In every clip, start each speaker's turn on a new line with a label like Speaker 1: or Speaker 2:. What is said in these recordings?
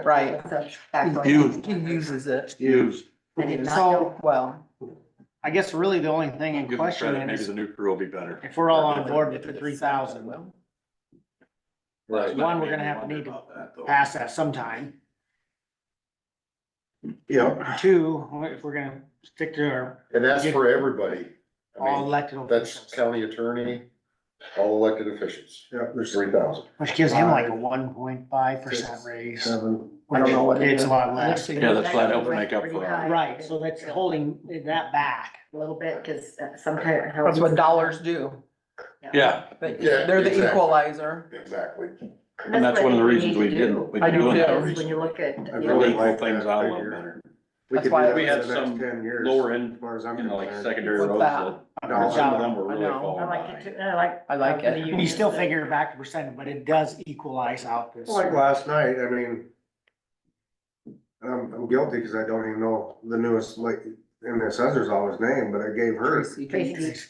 Speaker 1: Right.
Speaker 2: So, back on.
Speaker 3: Used.
Speaker 1: He uses it.
Speaker 3: Used.
Speaker 2: I did not know.
Speaker 1: So, well,
Speaker 4: I guess really the only thing in
Speaker 3: Give them
Speaker 4: question
Speaker 3: credit, maybe
Speaker 4: is
Speaker 3: the new crew will be better.
Speaker 4: if we're all on board with the three thousand,
Speaker 3: Right.
Speaker 4: one, we're gonna have to need to pass that sometime.
Speaker 5: Yeah,
Speaker 4: Two, if we're gonna stick to our
Speaker 5: and that's for everybody. I
Speaker 4: all
Speaker 5: mean,
Speaker 4: elected
Speaker 5: that's
Speaker 4: officials,
Speaker 5: county attorney, all elected officials. Yeah. There's three thousand.
Speaker 4: which gives him like a one point five percent raise.
Speaker 5: Seven.
Speaker 1: uh, I don't know what it
Speaker 4: It's
Speaker 1: is.
Speaker 4: a lot less.
Speaker 3: Yeah, that's why that would make up for it.
Speaker 4: Right, so that's holding that back.
Speaker 2: A little bit, cause sometimes.
Speaker 1: that's what dollars do.
Speaker 3: Yeah,
Speaker 1: But
Speaker 5: Yeah,
Speaker 1: they're the
Speaker 5: exactly.
Speaker 1: equalizer.
Speaker 5: Exactly.
Speaker 3: and that's one of the reasons we didn't. we
Speaker 1: I do
Speaker 3: didn't
Speaker 1: too.
Speaker 2: Is when you look at.
Speaker 5: I
Speaker 3: Really
Speaker 5: really
Speaker 3: pull
Speaker 5: like
Speaker 3: things
Speaker 5: that
Speaker 3: out a little
Speaker 5: figure.
Speaker 3: better.
Speaker 5: We
Speaker 1: That's
Speaker 5: could do
Speaker 1: why
Speaker 5: that
Speaker 1: we
Speaker 5: for
Speaker 3: had
Speaker 5: the next
Speaker 3: some
Speaker 5: ten years.
Speaker 3: lower end,
Speaker 5: As far as I'm
Speaker 3: you know, like
Speaker 5: concerned.
Speaker 3: secondary
Speaker 1: What's
Speaker 3: roads.
Speaker 1: that?
Speaker 3: that- Some of them were
Speaker 1: I
Speaker 3: really
Speaker 1: know.
Speaker 3: falling
Speaker 2: I like
Speaker 3: behind.
Speaker 2: it too, I like.
Speaker 1: I like it.
Speaker 4: You still figure it back a percent, but it does equalize out this.
Speaker 5: Like last night, I mean. I'm, I'm guilty because I don't even know the newest, like, in the assessor's office name, but I gave her,
Speaker 1: Tracy Higgins.
Speaker 2: Tracy,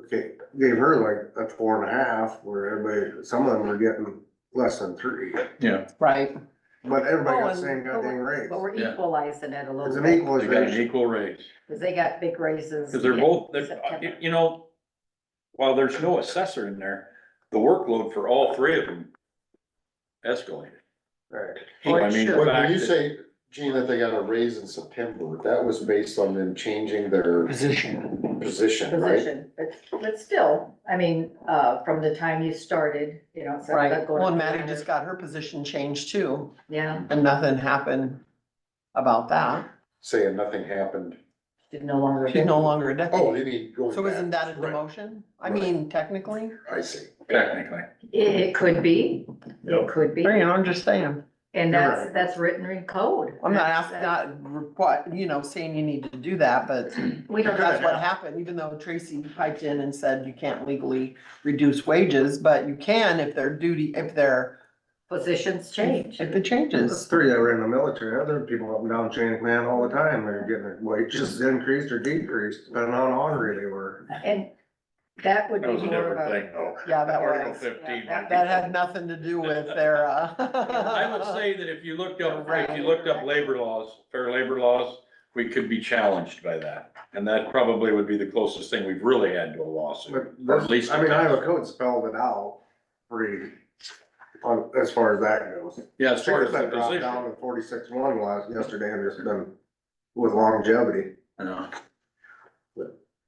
Speaker 5: okay, gave her like a four and a half where everybody, some of them were getting less than three.
Speaker 3: Yeah,
Speaker 1: Right,
Speaker 5: But everybody
Speaker 1: Oh,
Speaker 5: got
Speaker 1: and-
Speaker 5: the same goddamn raise.
Speaker 2: But we're
Speaker 3: Yeah.
Speaker 2: equalizing it a
Speaker 5: It's
Speaker 2: little bit,
Speaker 5: an
Speaker 3: they got an
Speaker 5: equalization.
Speaker 3: equal raise.
Speaker 2: cause they got big raises.
Speaker 3: Cause they're
Speaker 2: in
Speaker 3: both, they're,
Speaker 2: September.
Speaker 3: you know, while there's no assessor in there, the workload for all three of them escalated.
Speaker 5: Right.
Speaker 3: I mean, the
Speaker 5: When
Speaker 3: fact
Speaker 5: when you
Speaker 3: that-
Speaker 5: say, Gene, that they got a raise in September, that was based on them changing their
Speaker 4: Position.
Speaker 5: position, right?
Speaker 2: Position, but, but still, I mean, uh, from the time you started, you know, so.
Speaker 1: right. Well, and Maddie just got her position changed too,
Speaker 2: Yeah,
Speaker 1: and nothing happened about that.
Speaker 5: Saying nothing happened.
Speaker 2: she's no longer.
Speaker 1: She's no longer a
Speaker 5: Oh,
Speaker 1: deputy.
Speaker 5: you mean going back.
Speaker 1: So isn't that a
Speaker 5: Right,
Speaker 1: demotion? I
Speaker 5: Right.
Speaker 1: mean, technically,
Speaker 5: I see.
Speaker 3: Technically.
Speaker 2: It, it could be, it
Speaker 5: Yep.
Speaker 2: could be,
Speaker 1: Bring it, I'm just saying.
Speaker 2: and
Speaker 5: You're
Speaker 2: that's,
Speaker 5: right.
Speaker 2: that's written in code.
Speaker 1: I'm not
Speaker 2: That's-
Speaker 1: asking, not requi- you know, saying you need to do that, but
Speaker 2: We don't.
Speaker 1: that's what happened, even though Tracy piped in and said you can't legally reduce wages, but you can if their duty, if their,
Speaker 2: Positions change.
Speaker 1: if it changes.
Speaker 5: three that were in the military, other people up and down chain of command all the time, they're getting their wages increased or decreased, depending on honorary they were.
Speaker 2: And that would be
Speaker 3: That was a
Speaker 2: more
Speaker 3: different
Speaker 2: of a,
Speaker 3: thing though.
Speaker 1: Yeah, that
Speaker 3: Article
Speaker 1: was,
Speaker 3: fifteen.
Speaker 2: Yeah,
Speaker 1: that had nothing to do with their, uh.
Speaker 3: I would say that if you looked up, if you looked up labor laws, fair labor laws, we could be challenged by that. And that probably would be the closest thing we've really had to a lawsuit.
Speaker 5: But
Speaker 3: Or at least-
Speaker 5: this, I mean, I have a code spelled it out pretty, on, as far as that goes.
Speaker 3: Yeah, as far as the
Speaker 5: That dropped down
Speaker 3: position.
Speaker 5: to forty-six one last, yesterday, and it's been with longevity.
Speaker 3: Yeah.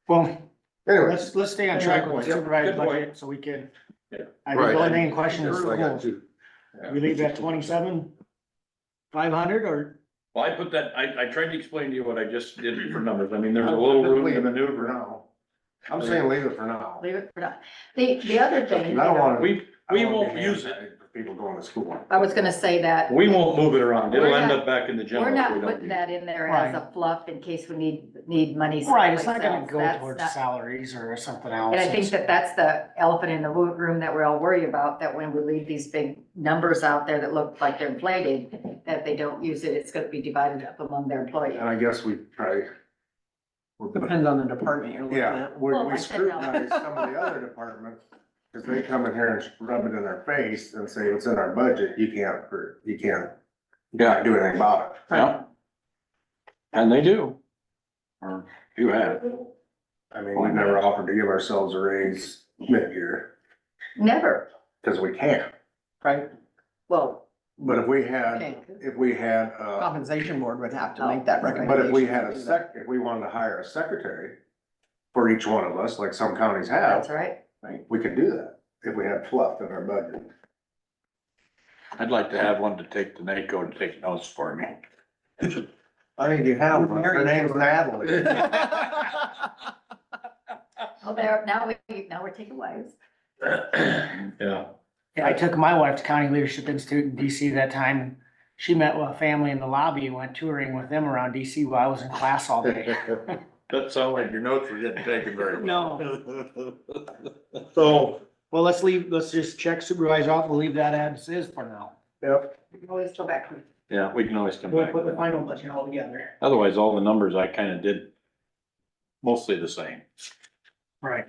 Speaker 4: Well,
Speaker 5: Anyway,
Speaker 4: let's, let's stay on track with supervised budget so we can.
Speaker 3: Yeah.
Speaker 4: I think the only thing in question is
Speaker 5: That's what I got
Speaker 4: schools.
Speaker 5: too.
Speaker 4: We leave that twenty-seven, five hundred or?
Speaker 3: Well, I put that, I, I tried to explain to you what I just did for numbers. I mean, there's a little room to
Speaker 5: for
Speaker 3: maneuver.
Speaker 5: now. I'm saying leave it for now.
Speaker 2: leave it for now. The, the other thing, you
Speaker 5: I don't
Speaker 2: know,
Speaker 5: wanna-
Speaker 3: We,
Speaker 5: I
Speaker 3: we
Speaker 5: don't wanna
Speaker 3: won't
Speaker 5: be
Speaker 3: use it.
Speaker 5: anti- People going to school.
Speaker 2: I was gonna say that.
Speaker 3: We won't move it around. It'll
Speaker 2: We're
Speaker 3: end
Speaker 2: not-
Speaker 3: up back in the general.
Speaker 2: We're
Speaker 3: if we
Speaker 2: not
Speaker 3: don't
Speaker 2: putting
Speaker 3: use it.
Speaker 2: that in there as a fluff in case we need, need money.
Speaker 4: Right, it's not
Speaker 2: someplace
Speaker 4: gonna
Speaker 2: else.
Speaker 4: go
Speaker 2: That's
Speaker 4: towards
Speaker 2: not-
Speaker 4: salaries or something else.
Speaker 2: And I think that that's the elephant in the wo- room that we're all worried about, that when we leave these big numbers out there that look like they're inflated, that they don't use it, it's gonna be divided up among their employees.
Speaker 5: And I guess we probably. we're-
Speaker 1: Depends on the department you're looking
Speaker 5: Yeah,
Speaker 1: at.
Speaker 5: we
Speaker 2: Well, I
Speaker 5: we
Speaker 2: said no.
Speaker 5: scrutinize some of the other departments, because they come in here and rub it in our face and say, it's in our budget, you can't, approve- you can't
Speaker 3: Yeah,
Speaker 5: do anything about it.
Speaker 3: yeah. And they do. Or you have.
Speaker 5: I mean, we've never offered to give ourselves a raise mid-year,
Speaker 2: Never,
Speaker 5: because we can't.
Speaker 1: Right,
Speaker 2: well,
Speaker 5: But if we had,
Speaker 1: okay.
Speaker 5: if we had, uh,
Speaker 1: Compensation board would have to make that recommendation.
Speaker 5: But if we had
Speaker 1: to
Speaker 5: a
Speaker 1: do
Speaker 5: sec,
Speaker 1: that.
Speaker 5: if we wanted to hire a secretary for each one of us, like some counties
Speaker 2: that's
Speaker 5: have,
Speaker 2: all right.
Speaker 5: we could do that if we had fluff in our budget.
Speaker 3: I'd like to have one to take to NACO to take notes for me.
Speaker 5: I think you have,
Speaker 1: one. Her name's
Speaker 5: Natalie.
Speaker 2: Well, there, now we, now we're taking wives.
Speaker 3: Yeah.
Speaker 4: I took my wife to County Leadership Institute in DC that time. She met with a family in the lobby and went touring with them around DC while I was in class all day.
Speaker 3: That sounded like your notes were getting taken very well. No.
Speaker 5: So,
Speaker 4: Well, let's leave, let's just check supervisor off, we'll leave that as is for now.
Speaker 5: yep,
Speaker 2: We can Always go back.
Speaker 3: Yeah, we can always come
Speaker 4: We'll
Speaker 3: back.
Speaker 4: put the final budget all together.
Speaker 3: Otherwise, all the numbers I kinda did mostly the same.
Speaker 4: Right,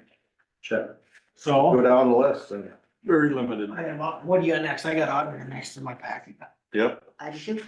Speaker 5: check, go
Speaker 4: so,
Speaker 5: down the list and.
Speaker 3: Very limited.
Speaker 4: I have, what do you got next? I got auditor next in my packet.
Speaker 3: Yep.
Speaker 2: I do.